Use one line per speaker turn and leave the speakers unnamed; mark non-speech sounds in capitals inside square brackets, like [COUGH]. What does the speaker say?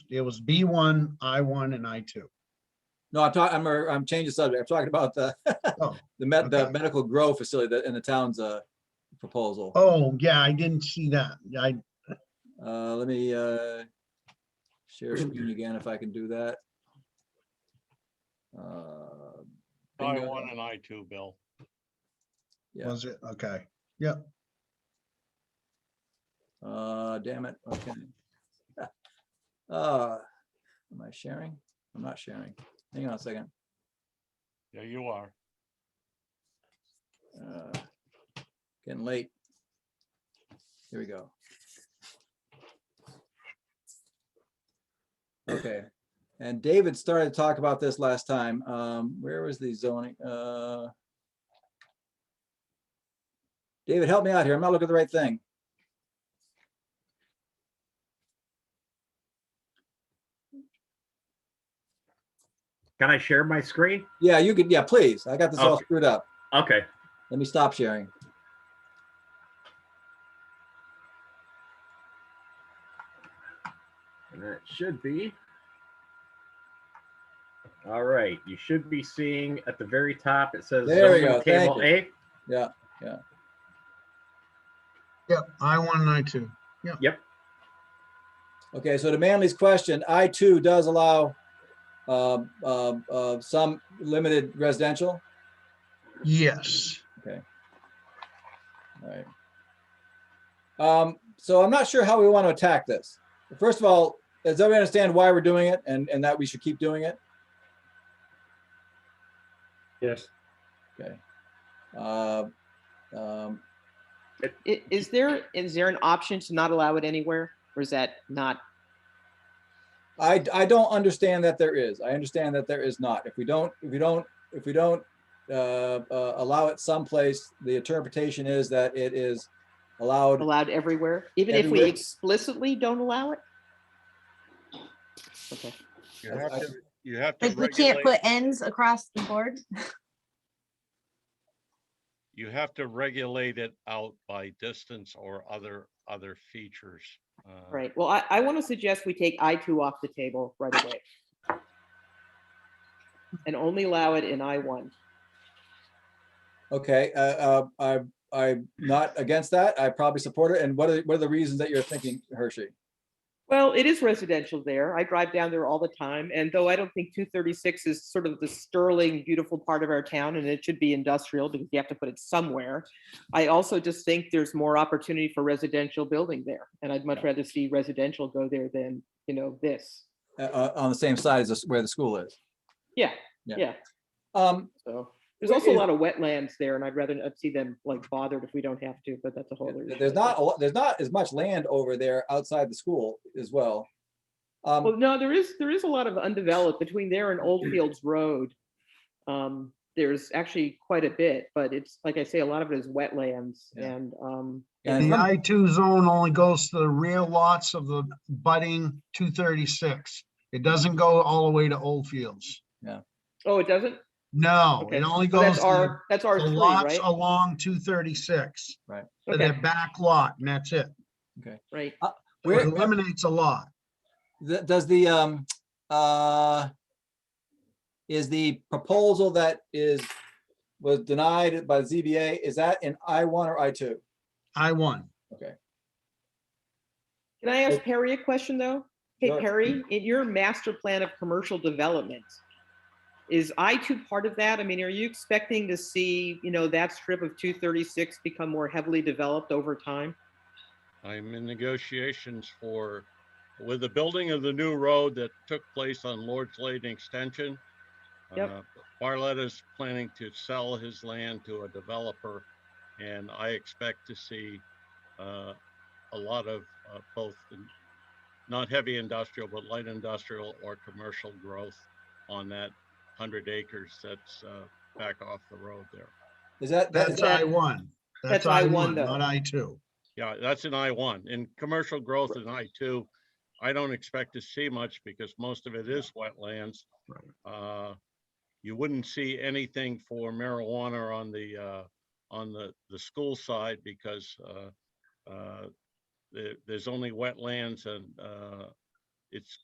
it was B one, I one, and I two.
No, I'm talking, I'm, uh, I'm changing subject. I'm talking about the, [LAUGHS]
Oh,
the med, the
okay.
medical grow facility that in the town's, uh, proposal.
Oh, yeah, I didn't see that. I,
Uh, let me, uh, share screen again if I can do that. Uh,
I
bingo.
one and I two, Bill.
Yeah.
was it? Okay.
Uh, damn it, okay. [LAUGHS] Uh, am I sharing? I'm not sharing. Hang on a second.
Yeah, you are.
Uh, Getting late. Here we go. Okay, and David started to talk about this last time. Um, where was the zoning? Uh. David, help me out here. I'm not looking at the right thing.
Can I share my screen?
Yeah, you could, yeah, please. I got this all
Okay.
screwed up.
Okay.
Let me stop sharing.
And that should be. All right, you should be seeing at the very top, it says
There we
zoning
go, thank
table A.
Yep, I one and I two.
Okay, so to Manley's question, I two does allow um, um, uh, some limited residential?
Yes.
Right. Um, so I'm not sure how we want to attack this. First of all, does everybody understand why we're doing it and, and that we should keep doing it?
Yes.
Okay. Uh, um,
I- Is there, is there an option to not allow it anywhere, or is that not?
I, I don't understand that there is. I understand that there is not. If we don't, if we don't, if we don't uh, uh, allow it someplace, the interpretation is that it is allowed.
allowed everywhere, even if we
Everywhere.
explicitly don't allow it? Okay,
You
I-
have
I-
to, you have to
Like we can't
regulate,
put ends across the board?
you have to regulate it out by distance or other, other features. uh,
right. Well, I, I want to suggest we take I two off the table right away. And only allow it in I one.
Okay, uh, uh, I, I'm not against that. I probably support it. And what are, what are the reasons that you're thinking, Hershey?
Well, it is residential there. I drive down there all the time, and though I don't think two thirty-six is sort of the sterling, beautiful part of our town, and it should be industrial because you have to put it somewhere. I also just think there's more opportunity for residential building there, and I'd much rather see residential go there than, you know, this.
Uh, Uh, on the same side as this- where the school is.
Yeah,
Yeah.
yeah.
Um,
So there's also a lot of wetlands there, and I'd rather not see them like bothered if we don't have to, but that's a whole. other issue,
There's
I
not, a
guess.
lot- there's not as much land over there outside the school as well.
Well,
Um,
no, there is, there is a lot of undeveloped between there and Old Fields Road. Um, there's actually quite a bit, but it's, like I say, a lot of it is wetlands
Yeah.
and, um,
and
The
from-
I two zone only goes to the rear lots of the budding two thirty-six. It doesn't go all the way to Old Fields.
oh, it doesn't?
No,
Okay.
it only
So
goes
That's
to
our, that's
the
our
the
three,
lots
right?
along two thirty-six. To
Okay,
their back lot and that's it.
right.
So It
where,
eliminates a lot.
th- does the, um, uh, is the proposal that is, was denied by ZBA, is that in I one or I two?
I one.
Can I ask Perry a question, though? Hey,
Sure.
Perry, in your master plan of commercial development, is I two part of that? I mean, are you expecting to see, you know, that strip of two thirty-six become more heavily developed over time?
I'm in negotiations for, with the building of the new road that took place on Lord's Lane Extension.
Yep.
uh, Barlett is planning to sell his land to a developer, and I expect to see uh, a lot of uh, both, in- not heavy industrial, but light industrial or commercial growth on that 100 acres that's uh, back off the road there.
Is that, that- is
That's
that,
I one.
that's I one, though.
Not I two.
Yeah, that's an I one. In commercial growth in I two, I don't expect to see much because most of it is wetlands.
Right.
Uh, You wouldn't see anything for marijuana on the, uh, on the, the school side because uh, uh, there, there's only wetlands and uh, it's